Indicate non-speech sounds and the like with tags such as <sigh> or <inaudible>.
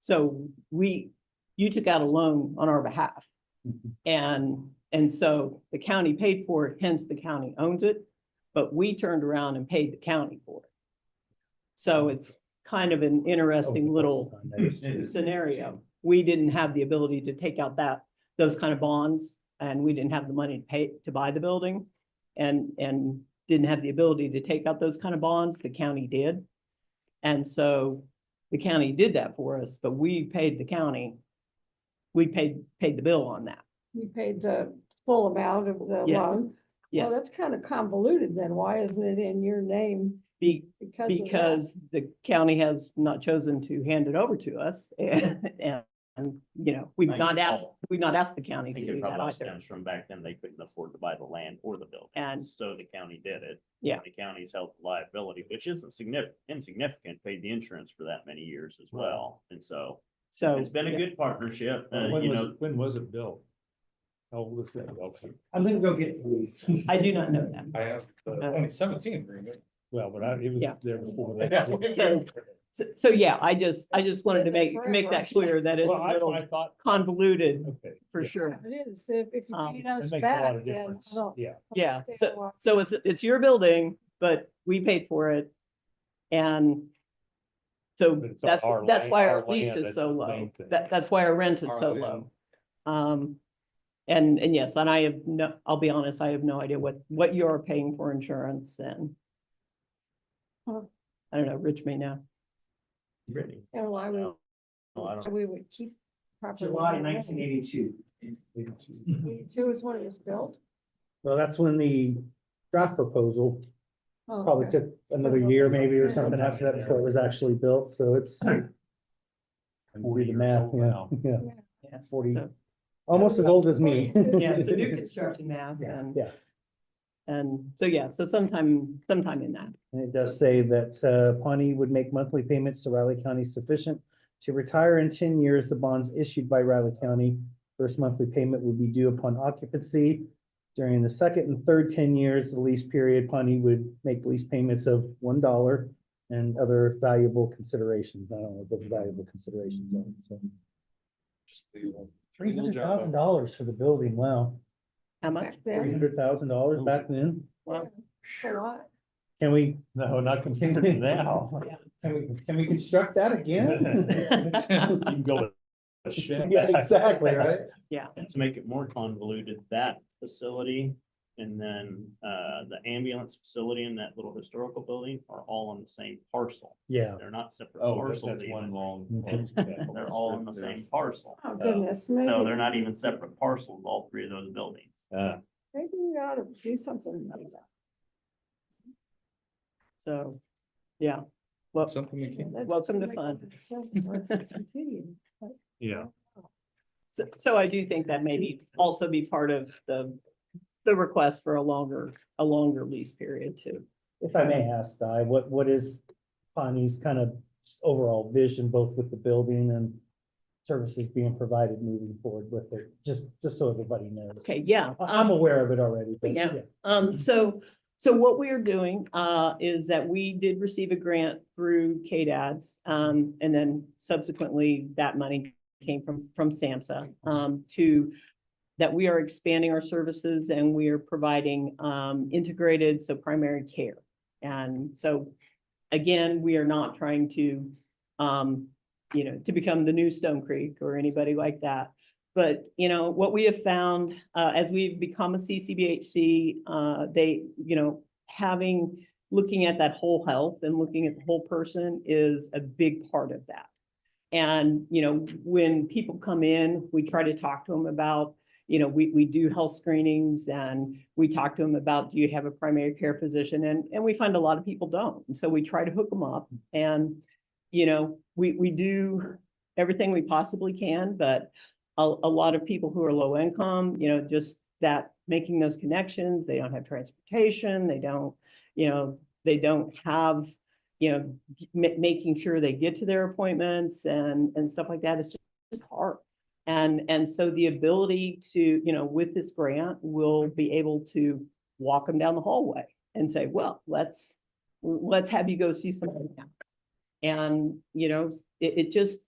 So we, you took out a loan on our behalf. And, and so the county paid for it, hence the county owns it, but we turned around and paid the county for it. So it's kind of an Oh, interesting little scenario. We didn't have the ability to take out that, those kind of bonds, and we didn't have the money to pay, to buy the building. And, and didn't have the ability to take out those kind of bonds, the county did. And so the county did that for us, but we paid the county. We paid, paid the bill on that, You paid the full amount of the Yes, loan? Well, yes, that's kind of convoluted then. Why isn't it in your name? be, Because of that? because the county has not chosen to hand it over to us. <laughs> And, and, you know, we've Thank not you. asked, we've not asked the county I to think do it that probably either. stems from back then, they couldn't afford to buy the land or the building. And- So the county did it. Yeah. The county's held the liability, which isn't significant, insignificant, paid the insurance for that many years as Right. well. And so So. it's been a good partnership, uh, When you was, know. it- when was it built? How old is that? building? I'm gonna go get <laughs> these. I do not know that. I have the Uh, twenty seventeen agreement. Well, but I, it was Yeah. there <laughs> before that. So- So, so yeah, I just, I just wanted to It's been make, there make that forever. clear that it's Well, a little I, I thought, convoluted okay. for yeah, sure. It is. If, if you Um, paid That us makes a lot back, of then difference. I don't. Yeah, Yeah, understand why- So it's, it's your building, but we paid for it. And so But it's that's, our that's land- why our our lease land, is that's so the low. main thing. That, that's why our rent is Our so land. low. Um, and, and yes, and I have no, I'll be honest, I have no idea what, what you're paying for insurance and Huh. I don't know, Rich may know. Brittany, And why we, no, Oh, I don't- we would keep. property July in there. nineteen eighty-two. Two is when it was built? Well, that's when the draft proposal Oh, probably okay. took another year maybe or something after that before it was actually built, so it's. We'll do the math, yeah, yeah, Yes. Forty. almost as old as me. Yeah, so <laughs> new construction math Yeah, and, yeah. and so, yeah, so sometime, sometime in that. And it does say that uh, Pawnee would make monthly payments to Riley County sufficient to retire in ten years the bonds issued by Riley County. First monthly payment would be due upon occupancy. During the second and third ten years, the lease period, Pawnee would make lease payments of one dollar and other valuable considerations. I don't know what those valuable considerations are. so. Three hundred thousand dollars for the building, wow. How much? Back Three then, hundred thousand dollars back then. a lot. Can we, no, not compared <laughs> to <laughs> now. can we, can we construct that again? You can go to. shit. Yeah, exactly, right? to make it more convoluted, that facility and then uh, the ambulance facility and that little historical building are all on the same parcel. Yeah. They're not separate <laughs> Oh, that's parcels that's one even. long. <laughs> They're all on the same parcel. Oh, So- goodness me. So they're not even separate parcels, all three of those buildings. Uh, Maybe we ought to do something about that. So, yeah, well, Something we can. That Welcome to doesn't make any sense for us to continue. yeah, so, so I do think that maybe also be part of the, the request for a longer, a longer lease period too. If I may ask, Di, what, what is Bonnie's kind of overall vision, both with the building and services being provided moving forward with it, just, just so everybody knows. Okay, yeah. um, I- I'm aware of it already, but Yeah. yeah. Um, so, so what we are doing, uh, is that we did receive a grant through KDADS. Um, and then subsequently that money came from, from SAMHSA, um, to that we are expanding our services and we are providing, um, integrated, so primary care. And so, again, we are not trying to, um, you know, to become the new Stone Creek or anybody like that. But, you know, what we have found, uh, as we've become a CCBHC, uh, they, you know, having, looking at that whole health and looking at the whole person is a big part of that. And, you know, when people come in, we try to talk to them about, you know, we, we do health screenings and we talk to them about, do you have a primary care physician? And, and we find a lot of people don't. And so we try to hook them up and, you know, we, we do everything we possibly can, but a, a lot of people who are low income, you know, just that, making those connections, they don't have transportation, they don't, you know, they don't have, you know, ma- making sure they get to their appointments and, and stuff like that is just, just hard. And, and so the ability to, you know, with this grant, we'll be able to walk them down the hallway and say, well, let's, let's have you go see somebody now. And, you know, it, it just,